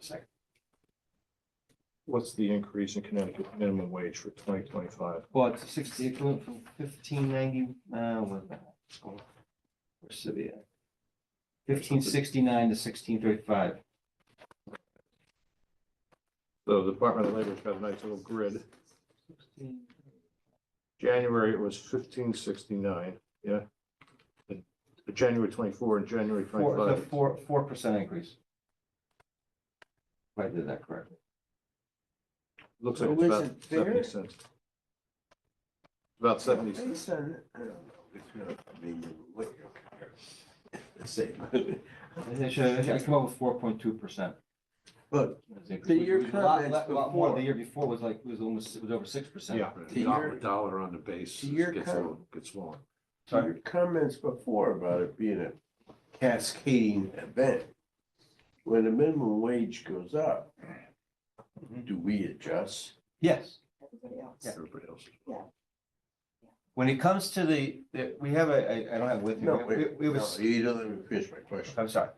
second. What's the increase in Connecticut minimum wage for twenty twenty-five? Well, it's sixty, it went from fifteen ninety, uh, what the hell? Where's Civia? Fifteen sixty-nine to sixteen thirty-five. So the Department of Labor's got a nice little grid. January, it was fifteen sixty-nine, yeah. And January twenty-four and January Four, it's a twenty-five. four, four percent increase. If I did that correctly. Looks like it's So is about it fair? seventy cents. About seventy cents. Based on- I don't know, it's uh, not, I mean, what you're saying. I should, I come up with four point two percent. But To your comments More, before. the year before was like, was almost, it was over six percent. Yeah. To Dollar, your- dollar on the base to your gets com- long, gets long. to your comments before about it being a cascading event, when the minimum wage goes up, Mm-hmm. do we adjust? Yes, everybody else. Everybody else. when it comes to the, the- we have a, I, I don't have it Uh-huh. with me, No, we, wait, we- we have a no, s- you don't let me finish my question. I'm sorry,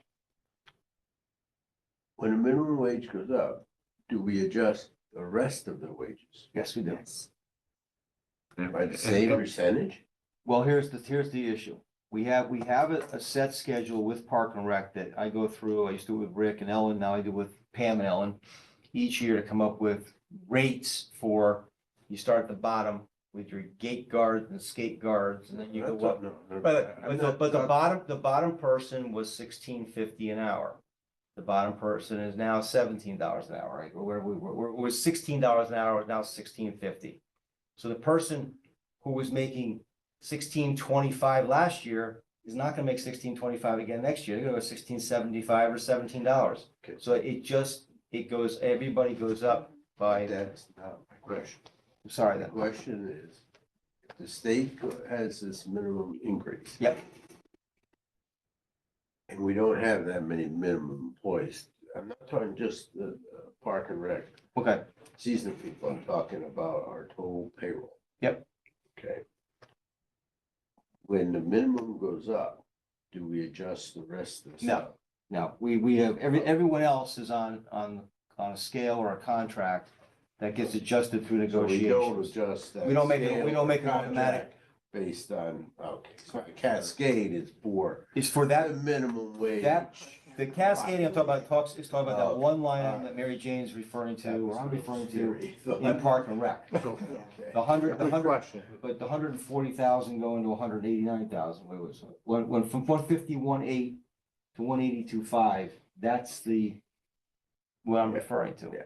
When the minimum wage goes up, do we adjust the rest of the wages yes, we do. Yes. by the same percentage? Well, here's the, here's the issue. We have, we have a, a set schedule with Park and Rec that I go through. I used to do it with Rick and Ellen, now I do with Pam and Ellen. Each year to come up with rates for, you start at the bottom with your gate guards and skate guards, and then you go up. No, no, But, I'm but the, not but the talking- bottom, the bottom person was sixteen fifty an hour. The bottom person is now seventeen dollars an hour, right? Or Where we were, where it was sixteen dollars an hour, now sixteen fifty. So the person who was making sixteen twenty-five last year is not gonna make sixteen twenty-five again next year. They're gonna go sixteen seventy-five or seventeen dollars. Okay. So it just, it goes, everybody goes up by, That's not my question. I'm sorry The then. question is, if the state go- has this minimum increase. Yep. And we don't have that many minimum employees. I'm not talking just the uh, park and rec Okay, season people. I'm talking about our total payroll. Yep. Okay. When the minimum goes up, do we adjust the rest of the No. stuff? No, we, we have, every, everyone else is on, on, on a scale or a contract that gets adjusted through So we don't negotiations. adjust that. We don't make it- we scale don't make or it automatic. contract Based on, okay, so the cascade is for It's for the that, minimum wage. that- the cascading I'm talking about talks, is talking about that one line item that Mary Jane's referring to, Oh, That was or I'm my referring to theory. in Park and Rec. So, Yeah. Okay. The hundred, the Good hundred, question. but the hundred and forty thousand going to hundred and eighty-nine thousand, wait, wait, so, when, when from one fifty-one eight to one eighty-two five, that's the, what I'm Yeah. referring to. Yeah.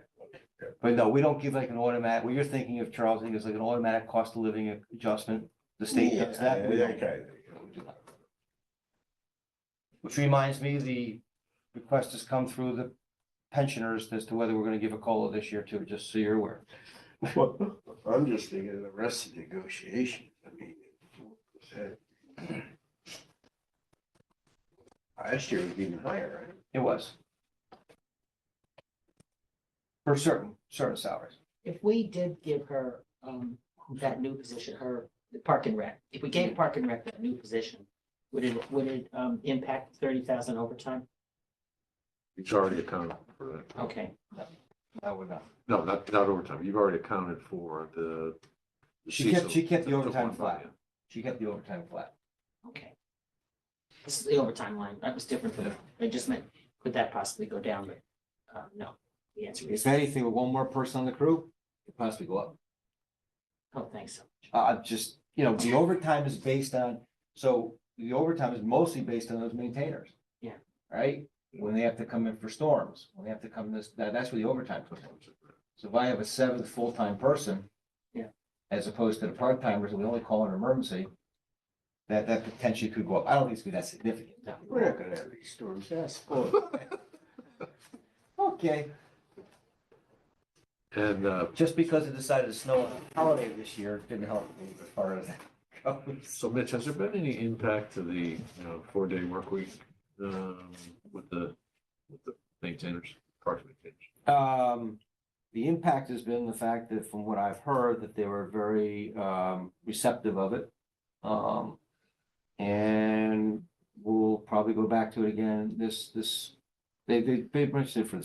Yeah. But no, we don't give like an automatic, what you're thinking of, Charles, I think is like an automatic cost of living adjustment. The state does that. we Yeah, don't. okay. We do not. Which reminds me, the request has come through the pensioners as to whether we're gonna give a COLA this year too, just so you're aware. Well, I'm just thinking of the rest of the negotiation, I uh, mean. that- Last year was even higher, right? It was. For certain, certain salaries. If we did give her, um, that new position, her, the park and rec, if we gave park and rec that new position, would it, would it, um, impact thirty thousand overtime? You've already accounted for that. Okay, That would not. No, not, not overtime. You've already accounted for the. the She kept- seasonal- she kept the overtime one, flat. yeah. She kept the overtime flat. okay. This is the overtime line, that was different for the, I just meant, could that possibly go down, but, uh, no, the answer is, If anything, with one more person on the crew, it possibly go up. oh, thanks so much. Uh, just, you know, the overtime is based on, so the overtime is mostly based on those maintainers. Yeah. Right? When they have to come in for storms, when they have to come this, that, that's where the overtime comes in. So if I have a seventh full-time person. Yeah. As opposed to the part-timers, we only call an emergency. That, that potentially could go up. I don't think it's gonna be that significant. We're not gonna have these storms, that's full. Okay. And, uh, Just because it decided to snow on a holiday this year didn't help me as far as that goes. so Mitch, has there been any impact to the, you know, four-day work week, um, with the, with the maintainers, parks maintainers? Um, the impact has been the fact that from what I've heard, that they were very, um, receptive of it. Um, and we'll probably go back to it again this, this, they, they, they mentioned it for the